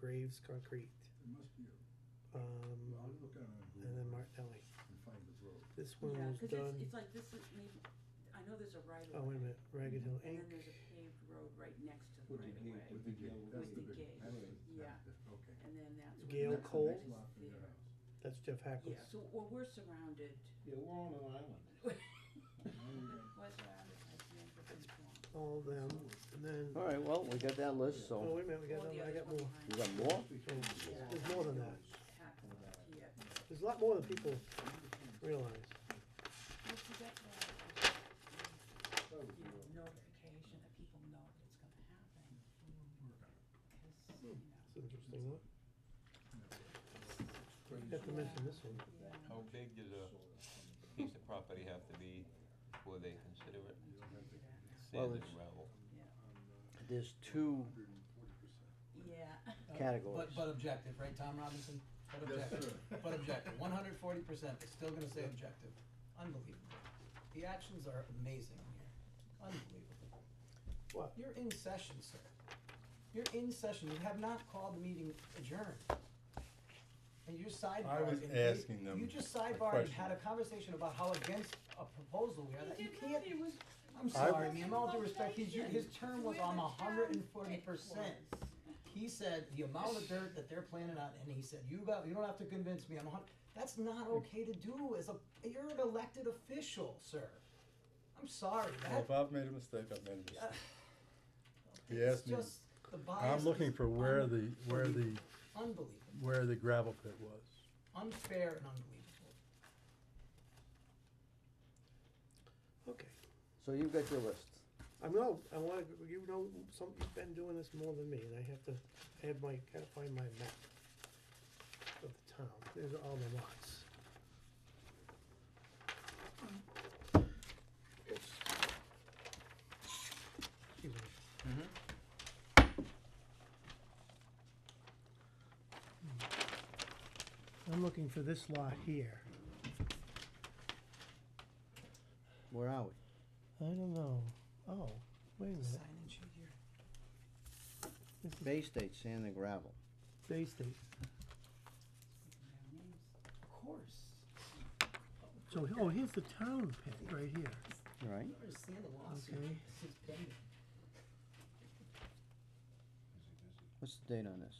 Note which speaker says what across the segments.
Speaker 1: Graves
Speaker 2: It
Speaker 1: Concrete,
Speaker 2: must be, a- well,
Speaker 1: um,
Speaker 2: I'll look on a
Speaker 1: and then
Speaker 2: Google
Speaker 1: Martinelli.
Speaker 2: and find the road.
Speaker 1: This one
Speaker 3: Yeah,
Speaker 1: was
Speaker 3: cause it's,
Speaker 1: done,
Speaker 3: it's like this is maybe, I know there's a right
Speaker 1: oh,
Speaker 3: of
Speaker 1: wait a minute,
Speaker 3: way,
Speaker 1: Ragged Hill
Speaker 3: and then
Speaker 1: Inc.,
Speaker 3: there's a paved road right next to the
Speaker 4: With
Speaker 3: right
Speaker 4: the
Speaker 3: of
Speaker 4: gate,
Speaker 3: way.
Speaker 4: with the gate.
Speaker 2: That's
Speaker 3: With
Speaker 2: the
Speaker 3: the
Speaker 2: big,
Speaker 3: gate.
Speaker 2: that's the,
Speaker 3: Yeah.
Speaker 2: that's the- okay.
Speaker 3: And then that's. where
Speaker 1: Gail
Speaker 3: the
Speaker 2: That's the
Speaker 1: Cole?
Speaker 2: next
Speaker 3: is
Speaker 2: lot from your
Speaker 3: there.
Speaker 2: house.
Speaker 1: that's Jeff
Speaker 3: Yeah,
Speaker 1: Hackles.
Speaker 3: so, well, we're surrounded,
Speaker 4: Yeah, we're on an island.
Speaker 3: we're surrounded by Sanford and Swampscott.
Speaker 1: All of them, and then,
Speaker 5: All right, well, we got that list,
Speaker 1: oh,
Speaker 5: so
Speaker 1: wait a minute, we
Speaker 3: All
Speaker 1: got,
Speaker 3: the
Speaker 1: I
Speaker 3: others
Speaker 1: got
Speaker 3: were
Speaker 1: more,
Speaker 5: you
Speaker 3: behind
Speaker 5: got more?
Speaker 1: Oh, there's more than that,
Speaker 3: Hackworth, yeah.
Speaker 1: there's a lot more than people realize.
Speaker 3: Well, see, that's why I was, you know, notification, that people know if it's gonna happen, cause, you
Speaker 1: It's an
Speaker 3: know,
Speaker 1: interesting one,
Speaker 2: Crazy.
Speaker 1: have to mention this one,
Speaker 3: yeah.
Speaker 6: How big does a piece of property have to be before they consider it
Speaker 2: You don't have to-
Speaker 5: Well,
Speaker 6: sand and
Speaker 5: it's-
Speaker 6: gravel?
Speaker 5: there's two
Speaker 3: Yeah.
Speaker 5: categories.
Speaker 7: But, but objective, right, Tom Robinson? But
Speaker 2: Yes,
Speaker 7: objective,
Speaker 2: sir.
Speaker 7: but objective, one hundred forty percent, they're still gonna say objective. Unbelievable. The actions are amazing here, unbelievable.
Speaker 1: What?
Speaker 7: You're in session, sir. You're in session, you have not called the meeting adjourned. And you're sidebarring.
Speaker 8: I was
Speaker 7: and you-
Speaker 8: asking them
Speaker 7: You just
Speaker 8: a
Speaker 7: sidebarred and
Speaker 8: question.
Speaker 7: had a conversation about how against a proposal we are, that you can't.
Speaker 3: was.
Speaker 7: I'm sorry, ma'am, all due respect, his, his term was on hundred and forty percent. He said the amount of dirt that they're planning on, and he said, you got, you don't have to convince me, I'm a hun- that's not okay to do as a, you're an elected official, sir. I'm sorry,
Speaker 8: Well,
Speaker 7: that,
Speaker 8: if I've made a mistake, I've made a mistake.
Speaker 7: Uh,
Speaker 8: He
Speaker 7: it's
Speaker 8: asked me,
Speaker 7: just the bias.
Speaker 8: I'm looking
Speaker 7: is
Speaker 8: for where
Speaker 7: un-
Speaker 8: the, where the,
Speaker 7: Unbelievable,
Speaker 8: where the gravel pit was.
Speaker 7: unfair and unbelievable.
Speaker 1: okay.
Speaker 5: So you've got your list.
Speaker 1: I know, I wanna, you know, some, you've been doing this more than me, and I have to, I have my, gotta find my map of the town, there's all the lots. Excuse me. Hmm. I'm looking for this lot here,
Speaker 5: Where are we?
Speaker 1: I don't know, oh, wait a minute,
Speaker 7: Sign-in sheet here.
Speaker 1: this is
Speaker 5: Bay State Sand and Gravel.
Speaker 1: Bay State,
Speaker 7: Of course,
Speaker 1: so, oh, here's the town pit, right here.
Speaker 5: All right.
Speaker 7: you understand the lawsuit,
Speaker 1: Okay.
Speaker 7: this is pending.
Speaker 5: What's the date on this?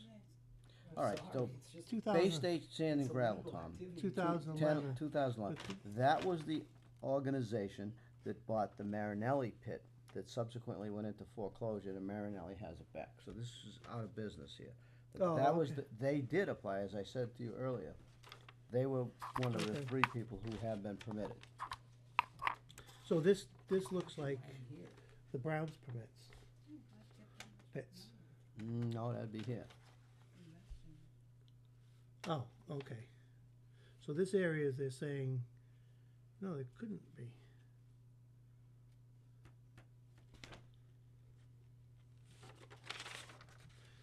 Speaker 7: I'm
Speaker 5: All right,
Speaker 7: sorry,
Speaker 5: so
Speaker 7: it's just-
Speaker 1: Two
Speaker 5: Bay
Speaker 1: thousand,
Speaker 5: State Sand
Speaker 7: it's
Speaker 5: and Gravel,
Speaker 7: illegal
Speaker 5: Tom.
Speaker 7: activity.
Speaker 1: two thousand eleven.
Speaker 5: 2011. That was the organization that bought the Marinelli pit that subsequently went into foreclosure, and Marinelli has it back. So this is out of business here.
Speaker 1: Oh,
Speaker 5: That was,
Speaker 1: okay.
Speaker 5: the- they did apply, as I said to you earlier. They were one of the
Speaker 1: Okay.
Speaker 5: three people who have been permitted.
Speaker 1: So this, this looks like
Speaker 7: Right here.
Speaker 1: the Browns permits. Pits.
Speaker 5: Mm, No, that'd be here.
Speaker 1: Oh, okay. So this area, they're saying, no, it couldn't be.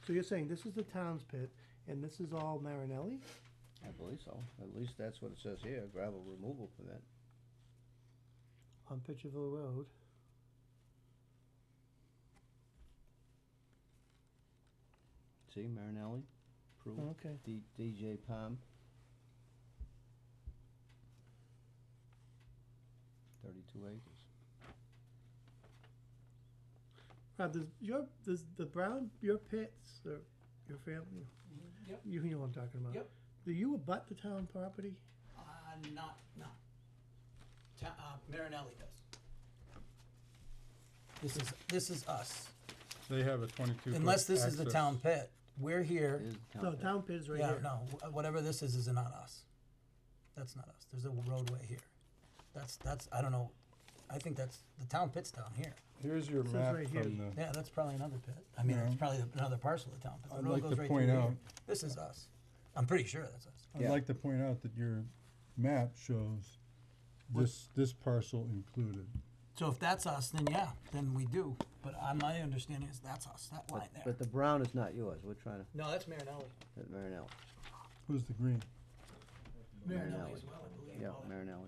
Speaker 1: So you're saying this is the town's pit and this is all Marinelli?
Speaker 5: I believe so. At least that's what it says here, gravel removal permit.
Speaker 1: on Pitcherville Road.
Speaker 5: See, Marinelli, approved,
Speaker 1: Oh, Okay.
Speaker 5: D- DJ Palm. Thirty-two acres.
Speaker 1: Rob, does your, does the Brown, your pits, or your family,
Speaker 7: Mm-hmm. Yep,
Speaker 1: you know what I'm talking about?
Speaker 7: Yep.
Speaker 1: Do you abut the town property?
Speaker 7: uh, not, no. Ta- uh, Marinelli does. This is, this is us,
Speaker 8: They have a twenty-two. foot
Speaker 7: unless this is the
Speaker 8: access.
Speaker 7: town pit, we're here,
Speaker 5: It is town
Speaker 1: No,
Speaker 5: pit.
Speaker 1: town pit is right
Speaker 7: yeah,
Speaker 1: here.
Speaker 7: no, wh- whatever this is, is not us. That's not us, there's a roadway here, that's, that's, I don't know, I think that's, the town pit's down here,
Speaker 8: Here's your
Speaker 1: says
Speaker 8: map
Speaker 1: right here.
Speaker 8: from the,
Speaker 7: yeah, that's probably another pit, I mean, it's
Speaker 8: No.
Speaker 7: probably another parcel of town, but the
Speaker 8: I'd
Speaker 7: road
Speaker 8: like
Speaker 7: goes
Speaker 8: to
Speaker 7: right through
Speaker 8: point
Speaker 7: here,
Speaker 8: out-
Speaker 7: this is us, I'm pretty sure that's us.
Speaker 8: I'd like to point out that your map shows this, this parcel included.
Speaker 7: So if that's us, then yeah, then we do, but uh, my understanding is that's us, that line
Speaker 5: But,
Speaker 7: there.
Speaker 5: but the brown is not yours, we're trying to,
Speaker 7: No, that's Marinelli.
Speaker 5: at Marinelli,
Speaker 8: Who's the green?
Speaker 7: Marinelli as well, I believe.
Speaker 5: yeah,
Speaker 7: all that.
Speaker 5: Marinelli.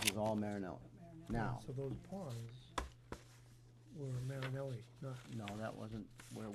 Speaker 5: This is all Marinelli. Now,
Speaker 1: So those ponds were Marinelli, not
Speaker 5: no, that wasn't where